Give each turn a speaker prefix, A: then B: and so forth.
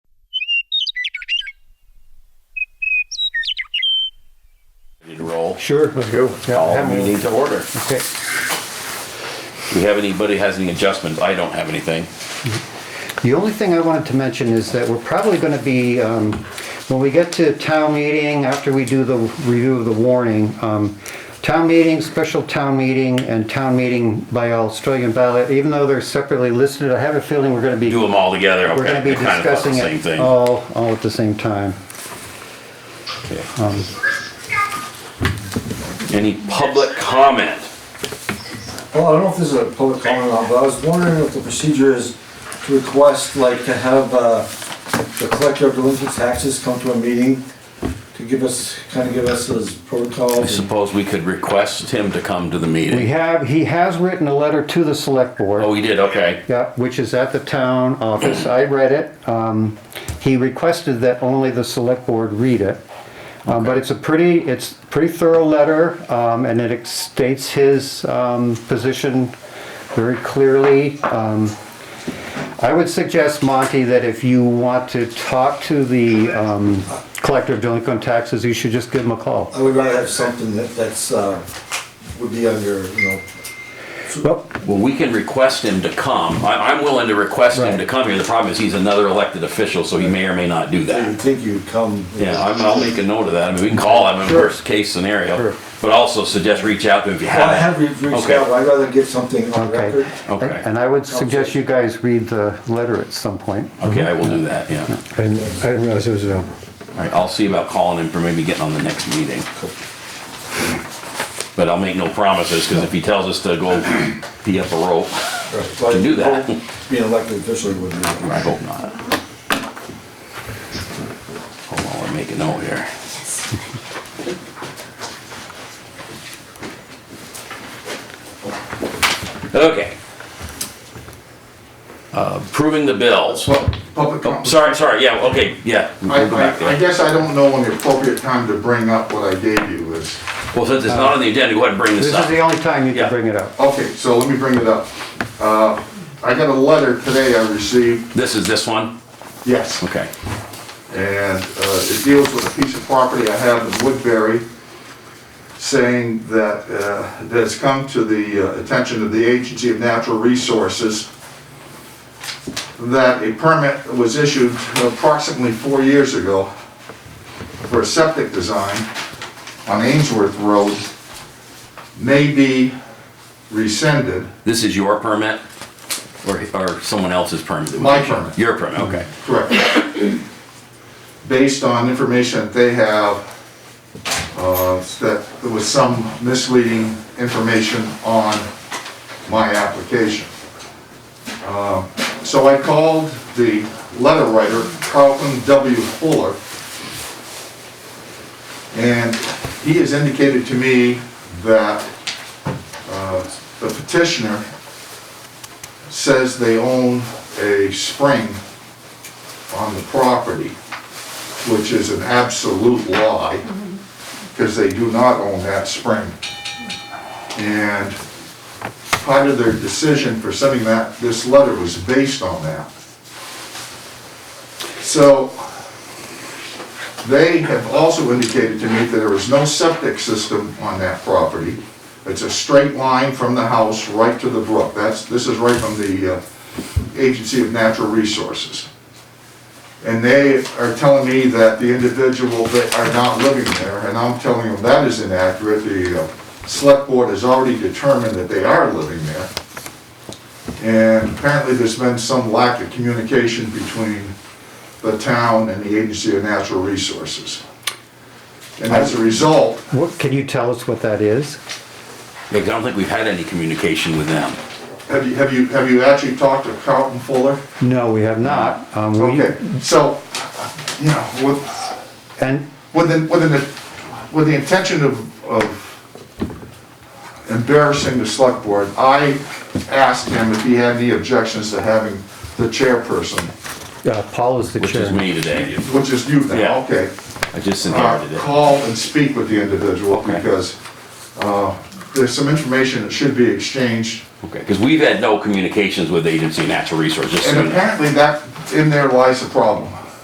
A: Sure. Let's go. Yeah,
B: All
A: have one.
B: meeting to order.
A: Okay.
B: Do we have anybody has any adjustments? I don't have anything.
C: The only thing I wanted to mention is that we're probably going to be, um, when we get to town meeting, after we do the review of the warning, um, town meeting, special town meeting, and town meeting by Australian ballot, even though they're separately listed, I have a feeling we're going to be,
B: Do them all together, okay?
C: we're going to be
B: I kinda thought the
C: discussing
B: Same
C: it Oh.
B: thing.
C: all, all at the same time.
B: Okay.
C: Um,
B: Any public comment?
D: Well, I don't know if this is a public comment or not, but I was wondering if the procedure is to request, like, to have, uh, the collector of delinquent taxes come to a meeting to give us, kind of give us his protocol.
B: I suppose we could request him to come to the
C: We
B: meeting.
C: have, he has written a letter to the select board.
B: Oh, he did, okay.
C: Yeah, which is at the town office. I read it. Um, He requested that only the select board read it. Um, But it's a pretty, it's pretty thorough letter, um, and it ex- states his um, position very clearly. Um, I would suggest, Monty, that if you want to talk to the um, collector of delinquent taxes, you should just give him a call.
D: I would rather have something that, that's, uh, would be under, you know,
C: Well,
B: Well, we can request him to come. I, I'm willing to request him to
C: Right.
B: come here. The problem is he's another elected official, so he may or may not do
D: I
B: that.
D: would think you'd come.
B: Yeah, I'm, I'll make a note of that. I mean, we can call him in worst case scenario,
C: Sure.
B: but also suggest reach out to him if you
D: Well, I
B: haven't.
D: have re- reached
B: Okay.
D: out, but I'd rather get something on
C: okay.
D: record.
B: Okay.
C: And I would suggest you guys read the letter at some point.
B: Okay, I will do that, yeah.
A: And I didn't realize it was um, a,
B: All right, I'll see about calling him for maybe getting on the next meeting. But I'll make no promises, because if he tells us to go pee up a rope,
D: But
B: Can do that.
D: Being elected officially would be.
B: I hope not. Hold on, I'll make a note here. Okay. Uh, Approving the bills.
E: Well, public
B: Oh,
E: comment.
B: sorry, sorry, yeah, okay, yeah. we'll
E: I,
B: go back there.
E: I, I guess I don't know when the appropriate time to bring up what I gave you is.
B: Well, since it's not on the agenda, go ahead and bring this
C: This
B: up.
C: is the only time you
B: Yeah.
C: can bring it up.
E: Okay, so let me bring it up. Uh, I got a letter today I received,
B: This is this one?
E: yes,
B: Okay.
E: and, uh, it deals with a piece of property I have in Woodbury saying that, uh, that has come to the uh, attention of the Agency of Natural Resources that a permit was issued approximately four years ago for a septic design on Ainsworth Road may be rescinded.
B: This is your permit? Or, or someone else's permit?
E: My permit.
B: Your permit, okay.
E: Correct. Based on information that they have, uh, that there was some misleading information on my application. Uh, So I called the letter writer, Carlton W. Fuller, and he has indicated to me that uh, the petitioner says they own a spring on the property, which is an absolute lie, because they do not own that spring. And part of their decision for sending that, this letter was based on that. So they have also indicated to me that there is no septic system on that property. It's a straight line from the house right to the brook. That's, this is right from the uh, Agency of Natural Resources. And they are telling me that the individual that are not living there, and I'm telling them that is inaccurate. The uh, select board has already determined that they are living there. And apparently there's been some lack of communication between the town and the Agency of Natural Resources. And as a result,
C: What, can you tell us what that is?
B: Because I don't think we've had any communication with them.
E: have you, have you, have you actually talked to Carlton Fuller?
C: No, we have not. Um, we-
E: Okay, so, you know, with,
C: And,
E: with the, with the, with the intention of, of embarrassing the select board, I asked him if he had any objections to having the chairperson,
C: uh, Paul is the
B: Which is
C: chairman.
B: me today.
E: which is you
B: Yeah.
E: now, okay.
B: I just
E: uh,
B: inherited it.
E: Call and speak with the individual
B: Okay.
E: because, uh, there's some information that should be exchanged.
B: Okay, because we've had no communications with the Agency of Natural Resources.
E: And apparently that, in there lies a problem.